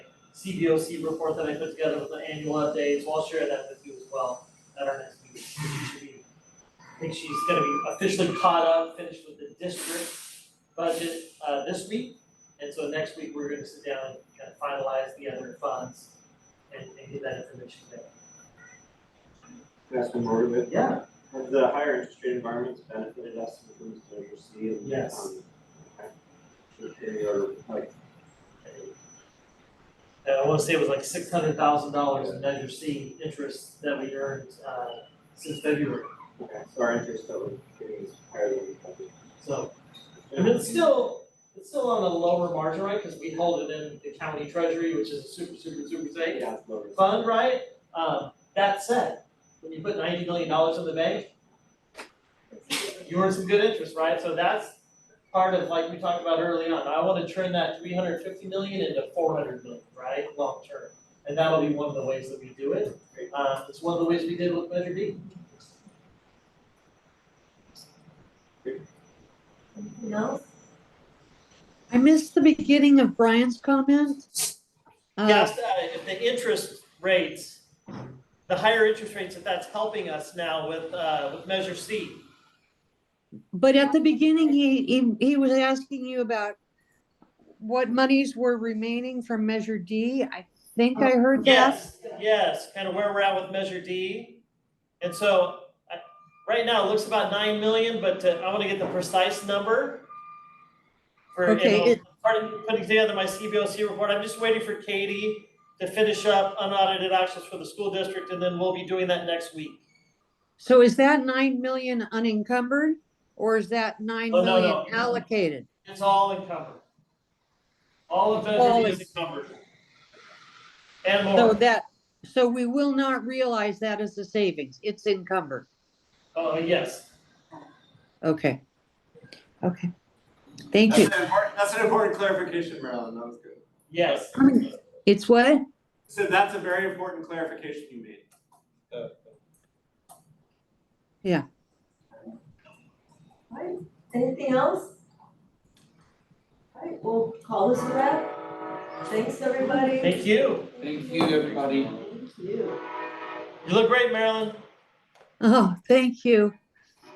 CBOC report that I put together with the annual updates, so I'll share that with you as well at our next meeting. She should be- I think she's gonna be officially caught up, finished with the district budget uh this week. And so next week, we're gonna sit down and kind of finalize the other funds and and get that information there. That's one more of it. Yeah, Have the higher interest rate environments benefited us in terms of literacy and? Yes. um, okay. If They are like, and I wanna say it was like six hundred thousand dollars in Measure C interest that we earned uh since February. okay, so our interest that we're getting is higher than we thought. So, and it's still, it's still on a lower margin, right, cause we hold it in the county treasury, which is a super, super, super safe Yeah, it's lower. fund, right? Um, that said, when you put ninety million dollars in the bank, you earn some good interest, right? So that's part of, like we talked about early on, I wanna turn that three hundred fifty million into four hundred million, right, long term. And that'll be one of the ways that we do it, uh, it's one of the ways we did with Measure D. Anything else? I missed the beginning of Brian's comment. Uh, Yes, uh, if the interest rates, the higher interest rates, if that's helping us now with, uh, with Measure C. But at the beginning, he, he, he was asking you about what monies were remaining from Measure D. I think Oh, I heard that. Yes, yes, kind of where we're at with Measure D. And so, I, right now, it looks about nine million, but to- I want to get the precise number. For, and Okay, I'll- it- part of putting together my CBOC report, I'm just waiting for Katie to finish up unaudited actions for the school district, and then we'll be doing that next week. So is that nine million unencumbered or is that nine Oh, no, million no. allocated? It's all encumbered. All of Measure All D is is- encumbered. And So more, that, so we will not realize that as a savings. It's encumbered. oh, yes, Okay. Okay. Thank you. That's an important, that's an important clarification, Marilyn, that was good. yes. It's what? So that's a very important clarification you made. Right, anything else? All right, we'll call this a wrap. Thanks, everybody. Thank you. Thank you, everybody. Thank you. You look great, Marilyn. Oh, thank you.